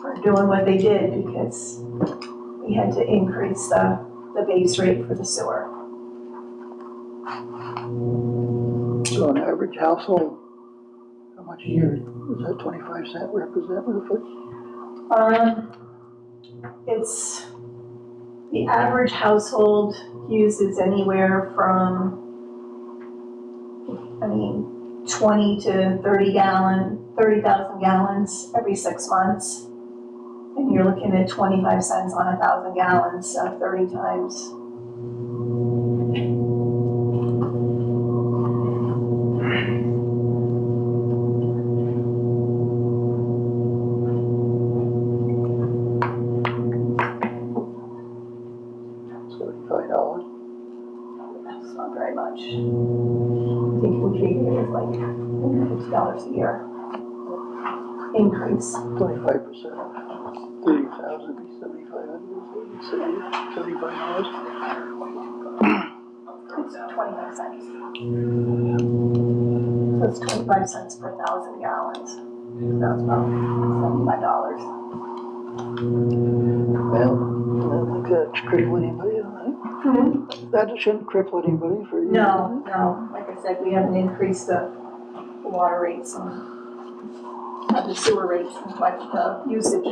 for doing what they did because we had to increase the, the base rate for the sewer. So an average household, how much a year, is that twenty-five cent represent roughly? Um, it's, the average household uses anywhere from, I mean, twenty to thirty gallon, thirty thousand gallons every six months. And you're looking at twenty-five cents on a thousand gallons, so thirty times Seventy-five dollars. That's not very much. I think we treated it as like fifty dollars a year. Increase. Twenty-five percent of thirty thousand, be seventy-five hundred, seventy, seventy-five dollars. It's twenty-five cents. So it's twenty-five cents per thousand gallons. That's about seventy-five dollars. Well, I don't think that's cripple anybody, I think. That shouldn't cripple anybody for you. Mm-hmm. No, no, like I said, we haven't increased the water rates and uh, the sewer rates and like the usage.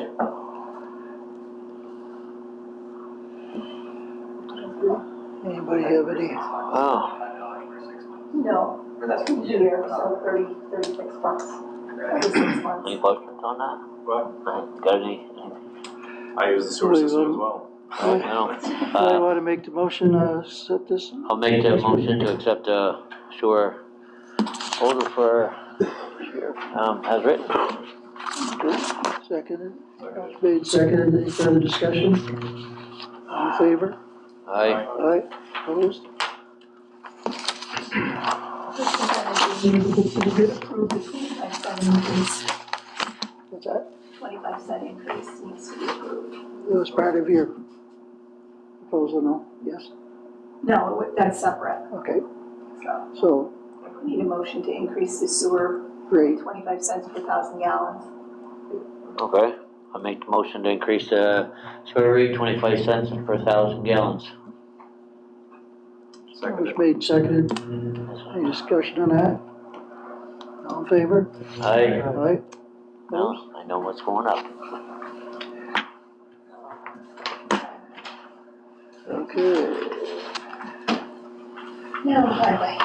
Anybody have any, Oh, No, a year, so thirty, thirty-six bucks, thirty-six months. any questions on that? What? Right, Got any? I use the sewer system as well. I don't know. I Uh, want to make the motion, uh, set this, I'll make the motion to accept the sewer order for, um, as written. seconded, It's made, seconded, any further discussion? All in favor? Aye. Aye, opposed? Twenty-five What's that? cent increase needs to be approved. It was part of your proposal, no? Yes, No, it would- that's separate, okay, so so, we need a motion to increase the sewer great, twenty-five cents per thousand gallons. Okay, I'll make the motion to increase the sewer rate twenty-five cents per thousand gallons. it was Second. made, seconded, any discussion on that? All in favor? Aye. Aye, Well, I know what's going up. okay, No, highway.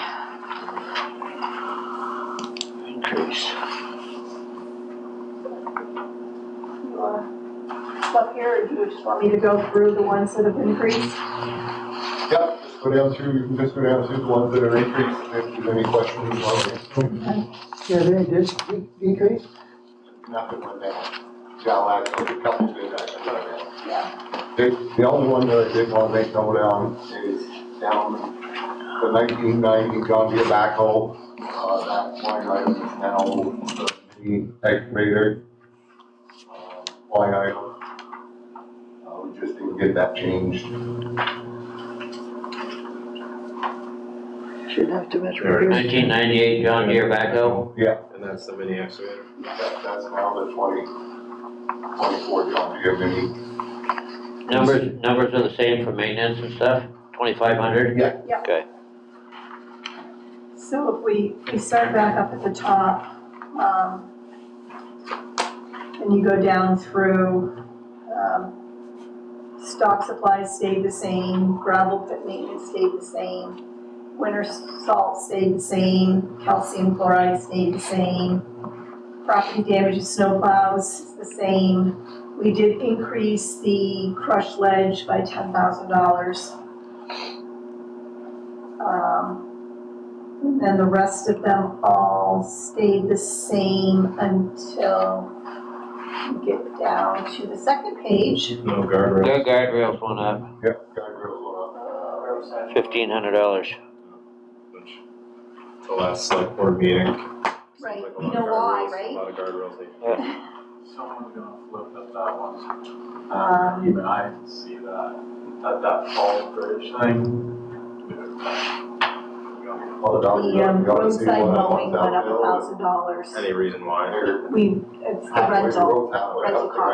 Increase. You want Up here, or do you just want me to go through the ones that have increased? Yep, just go down through, you can just go down through the ones that are increased, if there's any questions on it. yeah, they did decrease? Nothing went down. Shall I, a couple did actually go down. Yeah. The, the only one that I did want to make go down is down the nineteen ninety John Deere backhoe. Uh, that line item is now the excavator. uh, Line item. Uh, we just didn't get that changed. Shouldn't have too much. Very repair. Nineteen ninety-eight John Deere backhoe. And that's the mini excavator. That, that's now the twenty, twenty-four John Deere mini. Numbers, numbers are the same for maintenance and stuff, twenty-five hundred? Yeah. Yeah. Okay, So if we, we start back up at the top, um, and you go down through, um, stock supplies stayed the same, gravel pit maintenance stayed the same, winter salt stayed the same, calcium chloride stayed the same, property damage of snowplows is the same. We did increase the crushed ledge by ten thousand dollars. Um, and then the rest of them all stayed the same until you get down to the second page. No guardrail. their guardrails went up Yep. Guardrails fifteen hundred dollars. which The last select board meeting. Right, Like you a lot of know why, guardrails- A right? lot of guardrails. they- Someone's gonna flip at that one. Um, Even I can see that, at that fall bridge thing. went up. Well, the dog- The um, you ought to see roadside what I mowing want went up down a thousand dollars. Any reason why? there. We, it's the Halfway rental. road, halfway up rental there. cost.